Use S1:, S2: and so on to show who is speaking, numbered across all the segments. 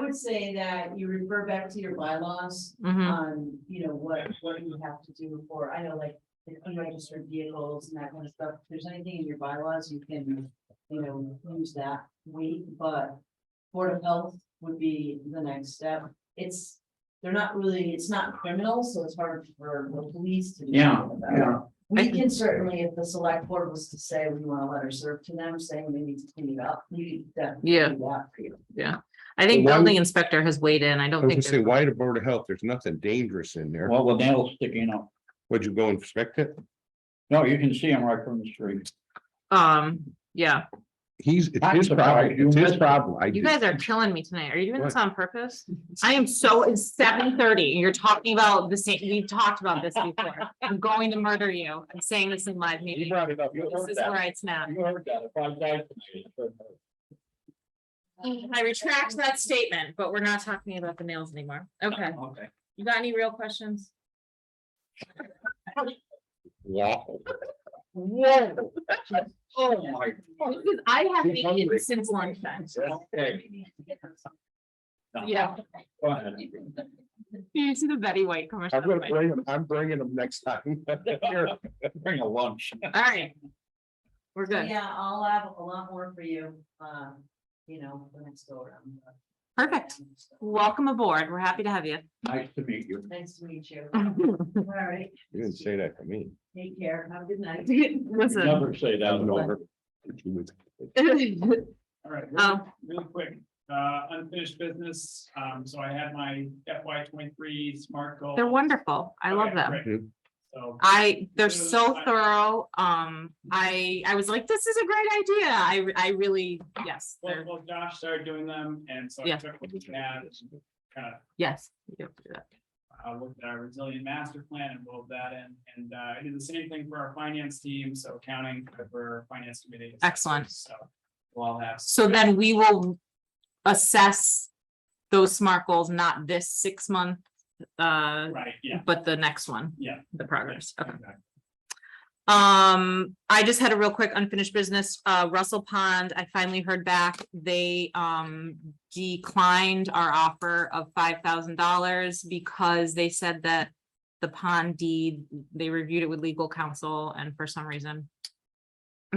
S1: would say that you refer back to your bylaws
S2: Um,
S3: Mhm.
S1: on, you know, what, what you have to do for, I know like the unregistered vehicles and that kind of stuff. If there's anything in your bylaws, you can, you know, use that week, but Board of Health would be the next step. It's, they're not really, it's not criminal, so it's hard for the police to. do
S4: Yeah,
S1: something about it.
S4: yeah.
S1: We can certainly, if the select board was to say we want a letter served to them saying they need to clean it up, we could definitely
S3: Yeah.
S1: do that for you.
S3: I think
S2: Why would-
S3: building inspector has weighed in. I
S2: I
S3: don't
S2: was gonna
S3: think,
S2: say,
S3: there's-
S2: why the Board of Health? There's nothing dangerous in there.
S4: Well, with nails sticking out.
S2: Would you go inspect it?
S4: No, you can see them right from the street.
S3: um, yeah,
S2: He's, it's
S4: I'm
S2: his problem.
S4: surprised you
S2: It's his
S4: missed it.
S2: problem. I
S3: you
S2: do.
S3: guys are killing me tonight. Are you doing
S2: What?
S3: this on purpose? I am so, it's seven thirty. You're talking about the same, we've talked about this before. I'm going to murder you. I'm saying this in live
S4: You
S3: meeting.
S4: brought it up. You
S3: This
S4: heard
S3: is where
S4: that.
S3: I snap.
S4: You heard that. If I died tonight.
S3: I retract that statement, but we're not talking about the nails anymore. Okay,
S4: Okay.
S3: you got any real questions?
S2: Wow.
S4: Whoa. Oh, my. God.
S3: Because I haven't
S4: You're hungry.
S3: eaten since lunchtime.
S4: Okay. No.
S3: Yeah,
S4: Go ahead.
S3: you see the Betty White commercial.
S2: I'm gonna bring him, I'm bringing him next time.
S4: Here, Bring a lunch.
S3: All right. We're good.
S1: Yeah, I'll have a lot more for you, um, you know, the next go around. but-
S3: Perfect. Welcome aboard. We're happy to have you.
S4: Nice to meet you.
S1: Nice to meet you. All right,
S2: You didn't say that for me.
S1: take care. Have a good night.
S4: You
S3: Listen.
S4: Never say that.
S2: I'm over. You would-
S5: All right,
S3: Oh.
S5: really- really quick, uh, unfinished business, um, so I had my FY twenty-three smart goal.
S3: They're wonderful. I love
S5: Okay,
S3: them.
S5: great. So,
S3: I, they're
S5: Those
S3: so
S5: I-
S3: thorough. Um, I, I was like, this is a great idea. I, I really, yes,
S5: well,
S3: they're,
S5: well, Josh started doing them, and so I
S3: Yeah.
S5: took what we had, and kind of,
S3: yes. you have to do that.
S5: uh, looked at our resilient master plan and rolled that in, and, uh, I did the same thing for our finance team, so accounting for finance committee.
S3: Excellent.
S5: So, we'll all have.
S3: So then we will assess those SMART goals, not this six month, uh,
S5: Right, yeah,
S3: but the next one.
S5: Yeah.
S3: The progress. Okay.
S5: exactly.
S3: Um, I just had a real quick unfinished business, uh, Russell Pond, I finally heard back, they, um, declined our offer of five thousand dollars because they said that the pond deed, they reviewed it with legal counsel and for some reason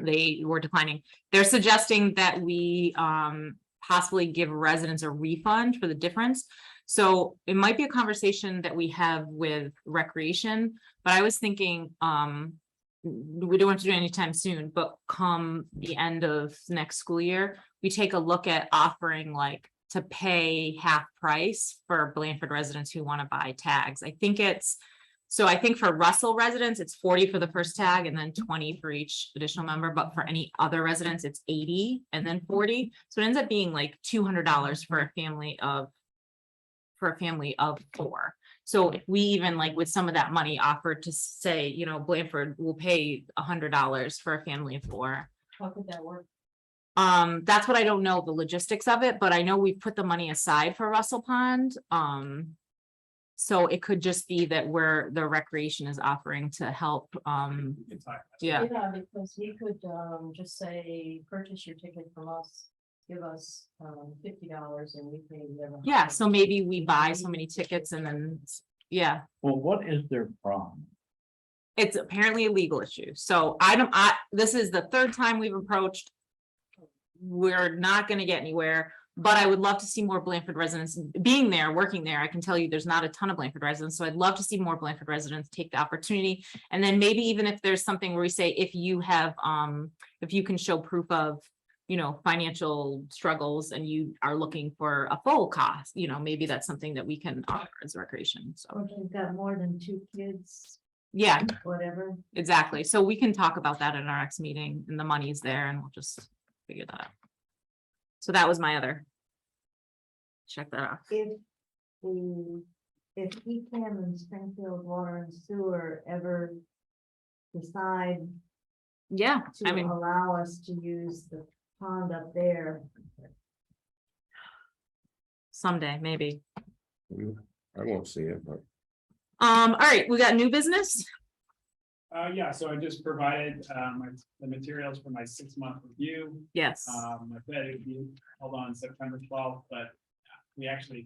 S3: they were declining. They're suggesting that we, um, possibly give residents a refund for the difference. So it might be a conversation that we have with recreation, but I was thinking, um, we don't want to do it anytime soon, but come the end of next school year, we take a look at offering like to pay half price for Blanford residents who want to buy tags. I think it's, so I think for Russell residents, it's forty for the first tag and then twenty for each additional member, but for any other residents, it's eighty and then forty. So it ends up being like two hundred dollars for a family of for a family of four. So if we even like with some of that money offered to say, you know, Blanford will pay a hundred dollars for a family of four.
S1: How could that work?
S3: Um, that's what I don't know, the logistics of it, but I know we've put the money aside for Russell Pond, um. So it could just be that we're, the recreation is offering to help, um,
S5: We can talk about it.
S3: yeah,
S1: Yeah, because he could, um, just say, purchase your ticket from us, give us, um, fifty dollars and we pay whatever.
S3: yeah, so maybe we buy so many tickets and then, yeah.
S4: Well, what is their problem?
S3: It's apparently a legal issue, so I don't, I, this is the third time we've approached. We're not gonna get anywhere, but I would love to see more Blanford residents being there, working there. I can tell you, there's not a ton of Blanford residents, so I'd love to see more Blanford residents take the opportunity. And then maybe even if there's something where we say, if you have, um, if you can show proof of. You know, financial struggles and you are looking for a full cost, you know, maybe that's something that we can offer as recreation, so,
S1: Or if you've got more than two kids,
S3: yeah.
S1: whatever.
S3: Exactly. So we can talk about that in our next meeting and the money's there and we'll just figure that out. So that was my other. Check that off.
S6: if the, if he can and Springfield Water and Sewer ever decide
S3: Yeah, I
S6: to
S3: mean,
S6: allow us to use the pond up there,
S3: someday, maybe.
S2: I won't see it, but
S3: Um, all right, we got new business.
S5: Uh, yeah, so I just provided, um, my- the materials for my six-month review.
S3: Yes.
S5: Um, I bet it'd be held on September twelfth, but we actually